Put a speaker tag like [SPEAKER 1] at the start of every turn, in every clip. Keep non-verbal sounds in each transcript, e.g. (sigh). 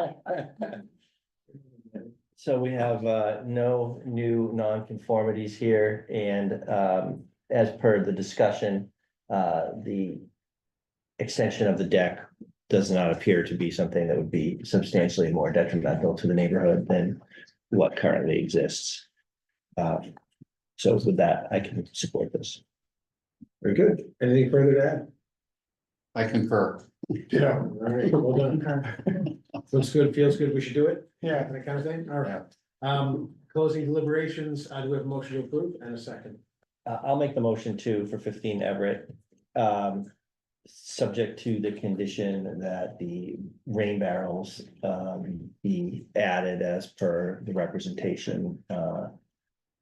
[SPEAKER 1] (laughs) So we have uh no new nonconformities here and um as per the discussion, uh the. Extension of the deck does not appear to be something that would be substantially more detrimental to the neighborhood than what currently exists. Uh, so with that, I can support this.
[SPEAKER 2] Very good. Anything further to add?
[SPEAKER 3] I concur.
[SPEAKER 2] Yeah. All right, well
[SPEAKER 4] (laughs)
[SPEAKER 2] done. Looks good, feels good, we should do it,
[SPEAKER 4] Yeah,
[SPEAKER 2] that kind of thing, all right. Um, closing deliberations, I do we have a motion to approve and a second.
[SPEAKER 1] Uh, I'll make the motion too for fifteen Everett. Um, subject to the condition that the rain barrels um be added as per the representation uh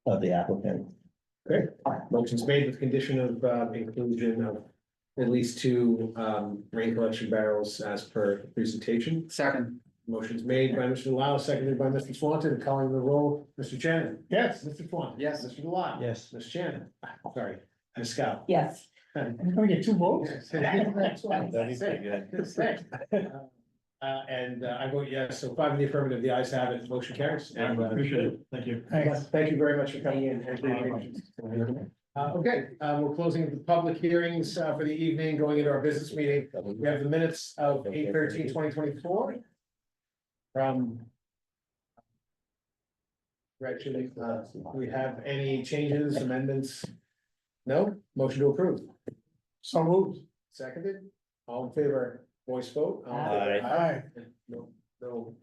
[SPEAKER 1] of the applicant.
[SPEAKER 2] Motion's made with condition of uh, inclusion of at least two um rain collection barrels as per presentation.
[SPEAKER 3] Second,
[SPEAKER 2] Motion's made by Mr. Delisle, seconded by Mr. Swanton, calling the roll, Mr. Shannon.
[SPEAKER 4] yes,
[SPEAKER 2] Mr. Swanton.
[SPEAKER 3] Yes.
[SPEAKER 2] Mr. Delisle.
[SPEAKER 1] Yes.
[SPEAKER 2] Ms. Shannon, Ah, sorry, Ms. Scott.
[SPEAKER 5] Yes,
[SPEAKER 4] I'm gonna get two votes.
[SPEAKER 2] (laughs) That's what I'm
[SPEAKER 1] That'd be pretty
[SPEAKER 2] saying.
[SPEAKER 1] good.
[SPEAKER 2] Good thing. Uh, and uh, I vote yes, so five in the affirmative, the ayes have it, motion carries.
[SPEAKER 6] I appreciate it. Thank you.
[SPEAKER 4] Thanks.
[SPEAKER 2] Thank you very much for coming in. Uh, okay, uh, we're closing the public hearings, uh, for the evening, going into our business meeting. We have the minutes of 2024 From. Actually, uh, we have any changes, amendments? No, motion to approve.
[SPEAKER 4] So moved.
[SPEAKER 2] Seconded, all in favor, voice vote. All in
[SPEAKER 1] Aye.
[SPEAKER 2] favor,
[SPEAKER 4] Aye.
[SPEAKER 2] No, no,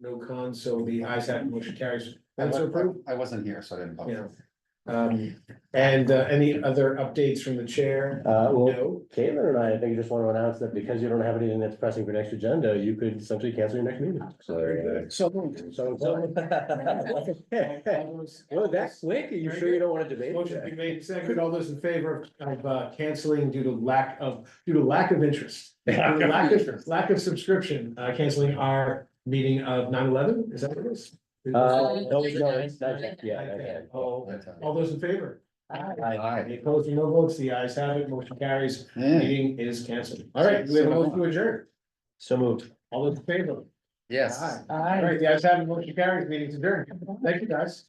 [SPEAKER 2] no cons, so the ayes have it, motion carries. That's approved.
[SPEAKER 3] I wasn't here, so I didn't vote.
[SPEAKER 2] Yeah. Um, and uh, any other updates from the chair?
[SPEAKER 6] Uh, well,
[SPEAKER 2] No,
[SPEAKER 6] Caitlin and I, I think just want to announce that because you don't have anything that's pressing for next agenda, you could essentially cancel your next meeting. So.
[SPEAKER 4] So
[SPEAKER 1] (laughs)
[SPEAKER 6] so-
[SPEAKER 2] All those-
[SPEAKER 6] Well, that's quick. Are you sure you don't want to debate?
[SPEAKER 2] Motion be made, seconded, all those in favor of uh, canceling due to lack of, due to lack of interest. Due to Lack of, lack of subscription, uh, canceling our meeting of 9/11. is that what it is?
[SPEAKER 6] Uh, no, no, it's not yet. Yeah, not
[SPEAKER 2] Okay.
[SPEAKER 6] yet.
[SPEAKER 2] All all those in favor?
[SPEAKER 3] Aye.
[SPEAKER 2] Any opposed, no votes, the ayes have it, motion carries,
[SPEAKER 3] Yeah.
[SPEAKER 2] meeting is canceled. All right, we have a motion to adjourn,
[SPEAKER 6] So moved.
[SPEAKER 2] all those in favor?
[SPEAKER 3] Yes.
[SPEAKER 2] Aye. All right, the ayes have it, motion carries, meeting's adjourned, thank you guys.